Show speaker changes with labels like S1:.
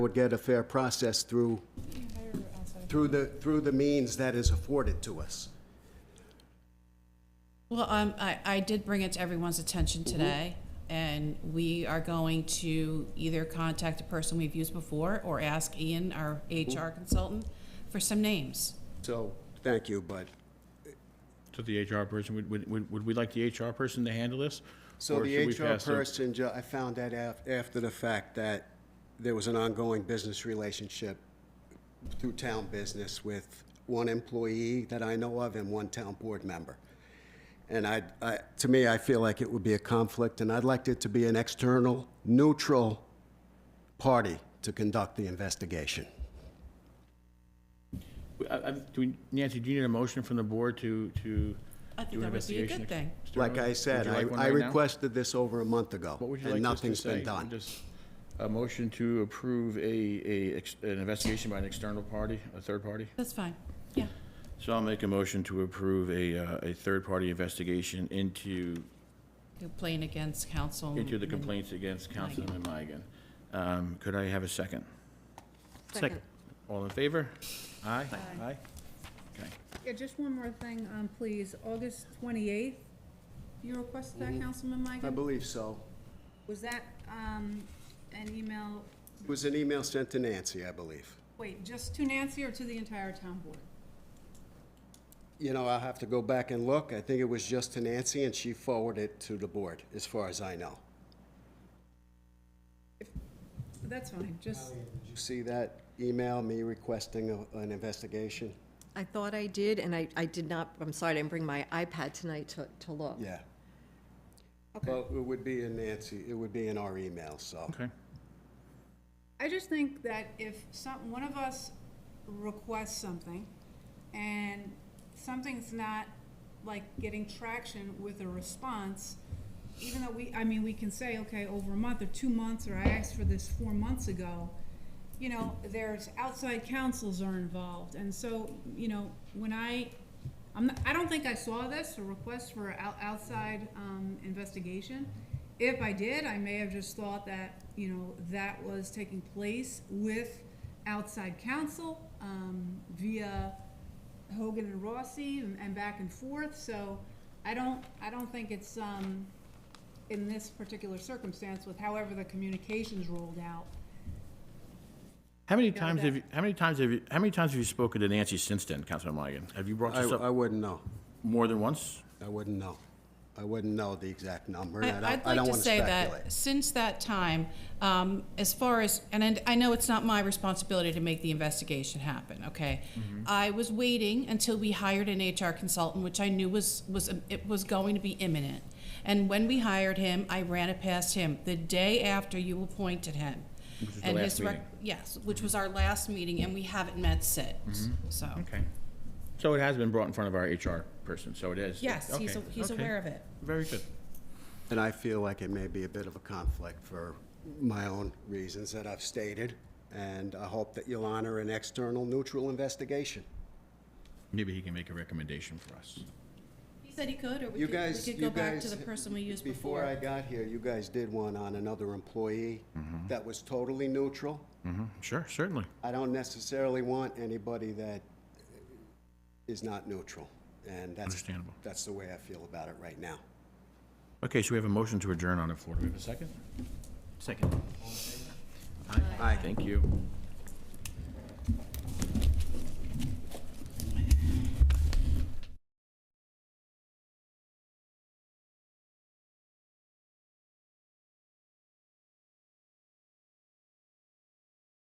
S1: would get a fair process through, through the, through the means that is afforded to us.
S2: Well, um, I, I did bring it to everyone's attention today, and we are going to either contact a person we've used before or ask Ian, our HR consultant, for some names.
S1: So, thank you, Bud.
S3: To the HR person, would, would- would, would we like the HR person to handle this?
S1: So
S3: Or
S1: the
S3: should we
S1: HR
S3: pass them-
S1: person, ju- I found that af- after the fact that there was an ongoing business relationship through town business with one employee that I know of and one town board member. And I, I, to me, I feel like it would be a conflict, and I'd like it to be an external, neutral party to conduct the investigation.
S3: I- I- do we- Nancy, do you need a motion from the board to, to
S2: I think
S3: do
S2: that would
S3: an
S2: be a
S3: investigation?
S2: good thing.
S1: Like I said,
S3: Would you
S1: I,
S3: like one
S1: I
S3: right now?
S1: requested this over a month ago,
S3: What would you like
S1: and
S3: us to
S1: nothing's been
S3: say?
S1: done.
S3: Just a motion to approve a, a, ex- an investigation by an external party, a third party?
S2: That's fine, yeah.
S3: So I'll make a motion to approve a, uh, a third-party investigation into,
S2: Complaint against council.
S3: into the complaints against Councilman Migan. Um, Could I have a second?
S4: Second.
S3: All in favor? Aye? Aye. Okay.
S5: Yeah, just one more thing, um, please, August twenty-eighth, you requested that, Councilman
S1: I
S5: Migan?
S1: believe so.
S5: Was that, um, an email,
S1: It was an email sent to Nancy, I believe.
S5: wait, just to Nancy or to the entire town board?
S1: You know, I'll have to go back and look. I think it was just to Nancy, and she forwarded it to the board, as far as I know.
S5: That's fine, just,
S1: Did you see that email, me requesting a- an investigation?
S4: I thought I did, and I, I did not, I'm sorry, I didn't bring my iPad tonight to, to look.
S1: Yeah.
S5: okay.
S1: Well, it would be in Nancy, it would be in our email, so.
S3: Okay.
S5: I just think that if some, one of us requests something and something's not like getting traction with a response, even though we, I mean, we can say, okay, over a month or two months, or I asked for this four months ago, you know, there's outside councils are involved. And so, you know, when I, I'm, not- I don't think I saw this, a request for out, outside, um, investigation. If I did, I may have just thought that, you know, that was taking place with outside counsel, um, via Hogan and Rossi and, and back and forth, so I don't, I don't think it's, um, in this particular circumstance with however the communications rolled out.
S3: How many
S5: know,
S3: times
S5: that-
S3: have you, how many times have you, how many times have you spoken to Nancy since then, Councilman Migan? Have you brought
S1: I,
S3: this
S1: I
S3: up
S1: wouldn't know.
S3: more than once?
S1: I wouldn't know. I wouldn't know the exact number. and
S2: I-
S1: I
S2: I'd
S1: don't, I
S2: like
S1: don't
S2: to
S1: want
S2: say
S1: speculate.
S2: that since that time, um, as far as, and I- I know it's not my responsibility to make the investigation happen, okay?
S1: Mm-hmm.
S2: I was waiting until we hired an HR consultant, which I knew was, was, it was going to be imminent. And when we hired him, I ran it past him the day after you appointed him.
S3: Which was the
S2: and
S3: last
S2: his rec-
S3: meeting.
S2: Yes, which was our last meeting, and we haven't met since,
S1: Mm-hmm.
S2: so.
S3: Okay. So it has been brought in front of our HR person, so it is?
S2: Yes, he's,
S3: Okay,
S2: he's
S3: okay.
S2: aware of it.
S3: Very good.
S1: And I feel like it may be a bit of a conflict for my own reasons that I've stated, and I hope that you'll honor an external, neutral investigation.
S3: Maybe he can make a recommendation for us.
S2: He said he could, or we
S1: You
S2: could, we
S1: guys,
S2: could
S1: you
S2: go back to
S1: guys-
S2: the person we used
S1: Before I got here, you guys did one on another employee that was totally neutral.
S3: Sure, certainly.
S1: I don't necessarily want anybody that is not neutral, and that's.
S3: Understandable.
S1: That's the way I feel about it right now.
S3: Okay, so we have a motion to adjourn on the floor. Do we have a second? Second. Aye. Thank you.